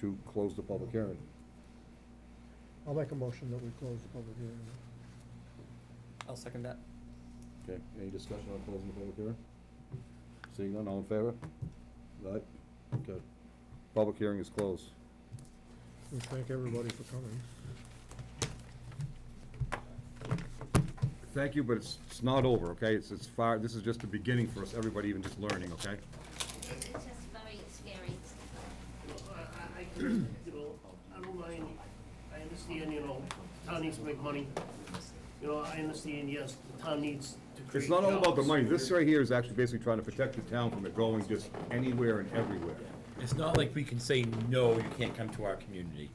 to close the public hearing. I'll make a motion that we close the public hearing. I'll second that. Okay, any discussion on closing the public hearing? Seeing none, all in favor? Aye, okay. Public hearing is closed. We thank everybody for coming. Thank you, but it's, it's not over, okay? It's, it's far, this is just the beginning for us, everybody even just learning, okay? It's just very scary. I, I, you know, I don't mind, I understand, you know, town needs to make money. You know, I understand, yes, the town needs to create It's not all about the jobs. money. This right here is actually basically trying to protect the town from it going just anywhere and everywhere. It's not like we can say, no, you can't come to our community.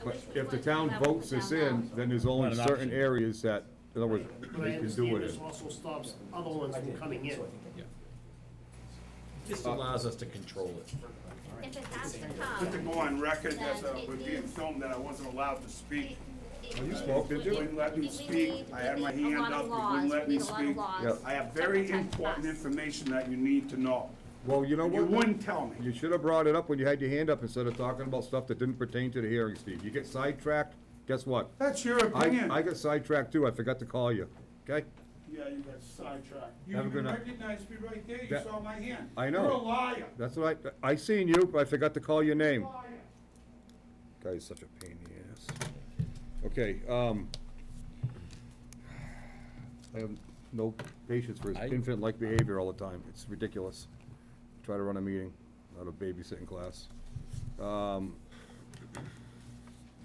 I But wish we if the could town have votes them this in, down. then there's Not only an certain option. areas that, in other words, But I they can do understand it this in. also stops other ones from coming in. Just allows us to control it. If it has to Put to come. go on record that uh, we're being filmed that I wasn't allowed to speak. you spoke, did you? They wouldn't let me speak. I had my hand up. They wouldn't let me speak. Yep. I have very important information that you need to know. Well, you know You what? wouldn't tell You me. should have brought it up when you had your hand up instead of talking about stuff that didn't pertain to the hearing, Steve. You get sidetracked, guess what? That's your I, opinion. I got sidetracked too. I forgot to call you, okay? Yeah, you got sidetracked. Have a good night. You recognized me right there. You That- saw my hand. I know. You're a liar. That's what I, I seen you, but I forgot to call your name. Liar. Guy's such a pain in the ass. Okay, um, I have no patience for his I- infant-like behavior all the time. It's ridiculous. Try to run a meeting out of babysitting class. Um,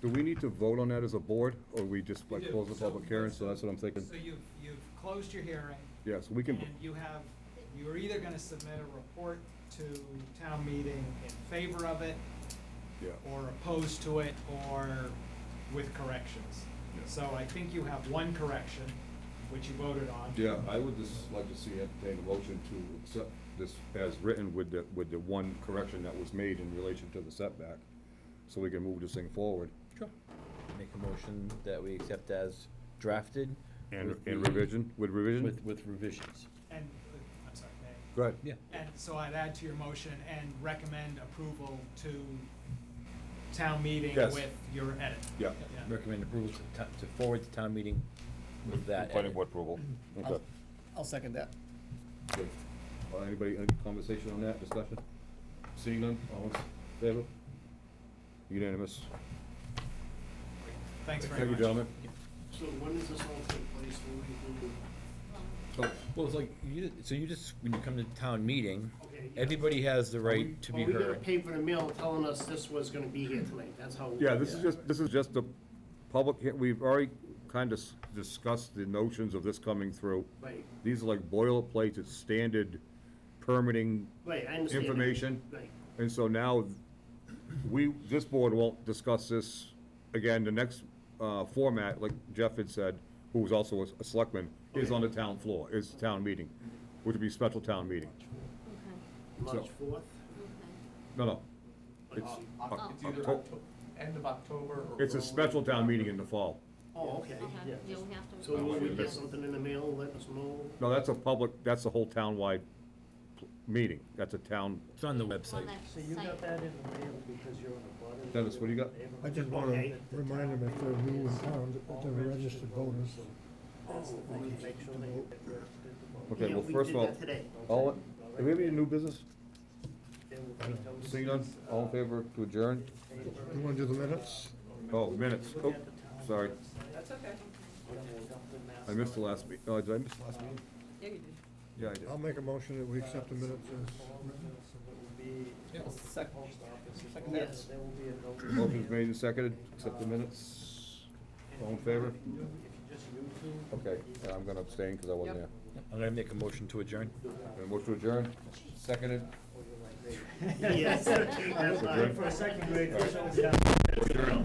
do we need to vote on that as a board, or we just like You do. close the So- public hearing? So that's what I'm thinking. So you've, you've closed your hearing, Yes, we can, and you have, you're either gonna submit a report to town meeting in favor of it, yeah. or opposed to it, or with corrections. Yeah. So I think you have one correction, which you voted on. Yeah, I would just like to see entertain a motion to accept this as written with the, with the one correction that was made in relation to the setback, so we can move this thing forward. Sure. Make a motion that we accept as drafted. And, with and the- revision, with revision? With, with revisions. And, uh, I'm sorry, may Go ahead. Yeah. I- and so I'd add to your motion and recommend approval to town meeting Yes. with your edit. Yeah. Recommend approval to, to to forward to town meeting with that. Planning edit. board approval. I'll, Okay. I'll second that. good. Uh, Anybody, any conversation on that, discussion? Seeing none, all in favor? Unanimous. Thanks very much. Thank you, gentlemen. So when does this all take place, when we do, So, Well, it's like, you, so you just, when you come to town meeting, okay? yeah. everybody has the right to be Well, we gotta heard. pay for the mail telling us this was gonna be here tonight, that's how. Yeah, this is just, this is just the public, hea- we've already kind of discussed the notions of this coming through. Right, These are like boilerplate, it's standard permitting, right, I understand. that. Information. Right, and so now, we, this board won't discuss this again, the next, uh, format, like Jeff had said, who was also a s- a selectman, is on the town floor, is town meeting, which would be special town meeting. March fourth. No, no, it's, Oh. It's either Octo- Octo- end of October or. it's a early- special town meeting in the fall. Oh, okay. Okay, you'll have to. So when we get something in the mail, let us know. No, that's a public, that's a whole town-wide pl- meeting, that's a town, It's on the website. So you got that? Dennis, what do you got? I just want to Okay. remind them if they're new in town, that they're registered voters. Okay, Yeah, well, we first did of all, that today. all, do we have any new business? Seeing none, all in favor to adjourn? You want to do the minutes? Oh, minutes, oh, sorry, That's okay. I missed the last meeting. oh, did I miss the last meeting? Yeah, you did. Yeah, I did. Um, I'll make a motion that we accept the minutes as written. I'll sec- second that. Yes. Motion's made and seconded, accept the minutes, all in favor? Okay, and I'm gonna abstain, because I wasn't there. I'm gonna make a motion to adjourn. And motion to adjourn, seconded, Yes, that's right, for a second grade, that's always done.